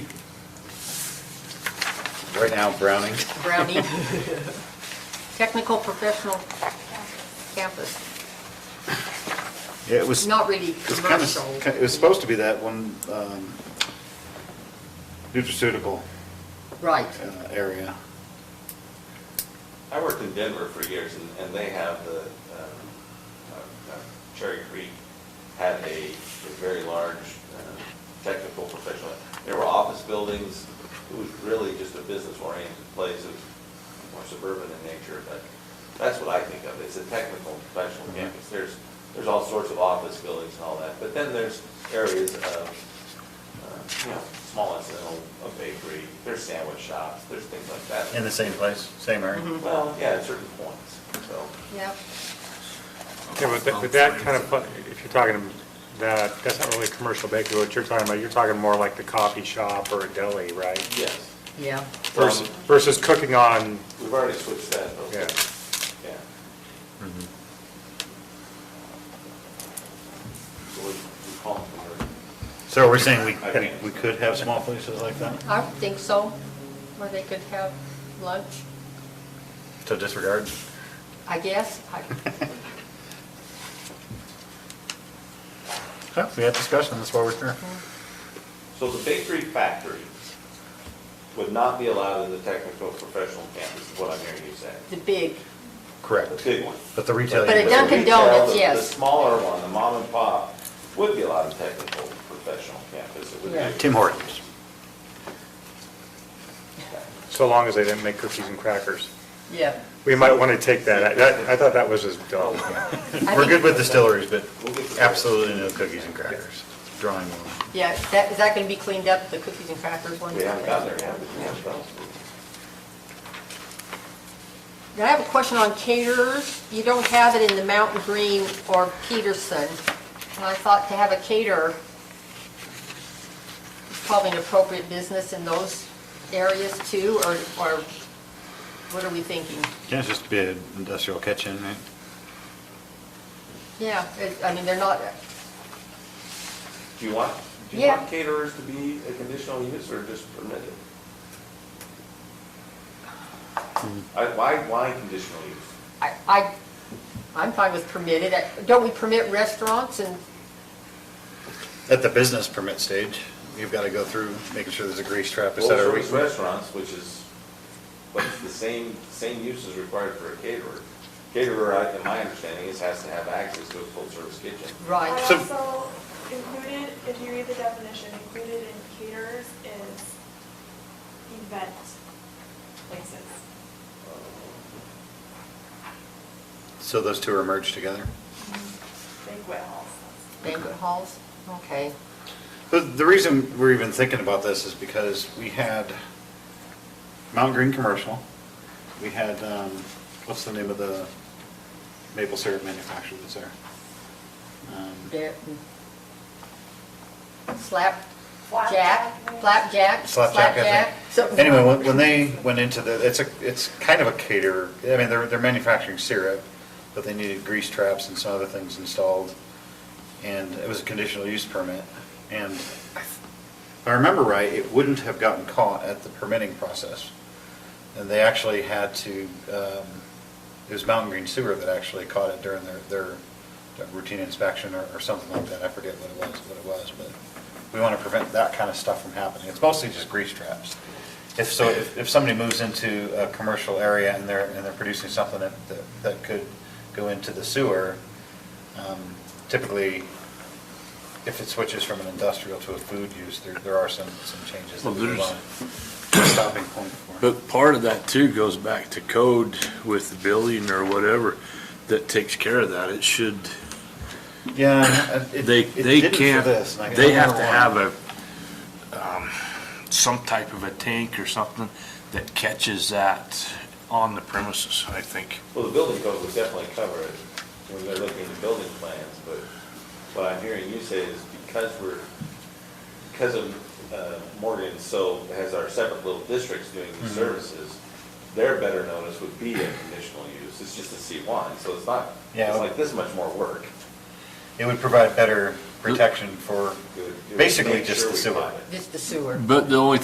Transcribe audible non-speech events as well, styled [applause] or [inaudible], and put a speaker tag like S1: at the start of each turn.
S1: Right now, Browning.
S2: Brownie. Technical professional campus,
S1: It was, it
S2: not really
S1: was kind
S2: commercial.
S1: of, it was supposed to be that one um, nutraceutical
S2: Right.
S1: uh, area.
S3: I worked in Denver for years, and, and they have the, um, uh, uh, Cherry Creek had a, a very large uh, technical professional. There were office buildings, it was really just a business-oriented place, it was more suburban in nature, but that's what I think of, it's a technical professional
S1: Mhm.
S3: campus. There's, there's all sorts of office buildings and all that, but then there's areas of, uh, you know, small incidental, a bakery, there's sandwich shops, there's things like that.
S4: In the same place, same area?
S2: Mhm.
S3: Well, yeah, at certain points, so.
S2: Yep.
S5: Yeah, but that, but that kind of, if you're talking that, that's not really a commercial bakery, what you're talking about, you're talking more like the coffee shop or a deli, right?
S3: Yes.
S2: Yeah.
S5: Versus, versus cooking on,
S3: We've already switched that, though.
S5: Yeah.
S3: Yeah.
S2: Mm-hmm.
S1: Mm-hmm.
S3: So we, we call them for,
S1: So we're saying we, we could have small places like that?
S2: I would think so, where they could have lunch,
S4: So
S1: [laughs]
S4: disregard?
S2: I guess. I-
S1: Huh, We had discussion, that's why we're here.
S3: so the bakery factory would not be allowed in the technical professional campus, is what I'm hearing you say.
S2: The big,
S3: The
S1: Correct.
S3: big one.
S1: But the retail.
S2: But a
S3: The
S1: unit-
S2: Dunkin'
S3: retail,
S2: Donuts,
S3: the- The
S2: yes.
S3: smaller one, the mom and pop, would be allowed in technical professional campus. It would
S2: Yeah.
S3: be.
S1: Tim Hortons.
S5: so long as they didn't make cookies and crackers.
S2: yeah.
S5: We might want to take that, that, I thought that was as dull.
S2: I
S4: We're good
S2: think-
S4: with distilleries, but
S3: We'll get to that.
S4: absolutely no cookies and crackers. Drawing one.
S2: Yeah, is that, is that going to be cleaned up, the cookies and crackers one?
S3: We haven't gotten there yet, but we have those.
S2: Now, I have a question on caterers. You don't have it in the Mountain Green or Peterson, and I thought to have a caterer is probably an appropriate business in those areas too, or, or what are we thinking?
S1: Can it just be an industrial kitchen, right?
S2: Yeah, it- I mean, they're not,
S3: Do you want, do you
S2: Yeah.
S3: want caterers to be a conditional use or just permitted? I, why, why conditional use?
S2: I, I, I'm fine with permitted. Don't we permit restaurants and,
S1: At the business permit stage, you've got to go through making sure there's a grease trap, et cetera.
S3: Full-service restaurants, which is, but it's the same, same use is required for a caterer. Caterer, I- in my understanding, is has to have access to a full-service kitchen.
S6: I
S2: right,
S1: So-
S6: also included, if you read the definition, included in caterers is event places.
S1: So those two are merged together?
S6: Banquet halls.
S2: banquet halls? Okay.
S1: The, the reason we're even thinking about this is because we had Mountain Green Commercial, we had, um, what's the name of the maple syrup manufacturer that's there? Um,
S2: There- Slap, jack,
S6: Flapjack.
S2: flapjack?
S1: Slapjack, I
S2: something-
S1: think. Anyway, when, when they went into the, it's a, it's kind of a caterer, I mean, they're, they're manufacturing syrup, but they needed grease traps and some other things installed, and it was a conditional use permit, and if I remember right, it wouldn't have gotten caught at the permitting process. And they actually had to, um, it was Mountain Green Sewer that actually caught it during their, their routine inspection or, or something like that. I forget what it was, what it was, but we want to prevent that kind of stuff from happening. It's mostly just grease traps. If so, if, if somebody moves into a commercial area and they're, and they're producing something that, that- that could go into the sewer, um, typically, if it switches from an industrial to a food use, there, there are some, some changes. that
S7: Well,
S1: we would
S7: there's-
S1: want a Stopping point for.
S7: But part of that too goes back to code with the building or whatever that takes care of that. It should,
S1: Yeah. uh, it-
S7: they,
S1: it
S7: they
S1: didn't for
S7: can't,
S1: this, and I-
S7: they
S1: I
S7: have to
S1: wonder why.
S7: have a, um, some type of a tank or something that catches that on the premises, I think.
S3: Well, the building code would definitely cover it when they're looking at building plans, but what I'm hearing you say is because we're, because of uh, Morgan, so has our separate little districts doing
S1: Mm-hmm.
S3: these services, their better notice would be a conditional use. It's just a C1, so it's not,
S1: Yeah.
S3: it's like this much more work.
S1: It would provide better protection for
S3: It would- it would
S1: basically
S3: make
S1: just
S3: sure
S1: the
S3: we
S1: sewer.
S3: caught it.
S2: Just the sewer.
S7: But the only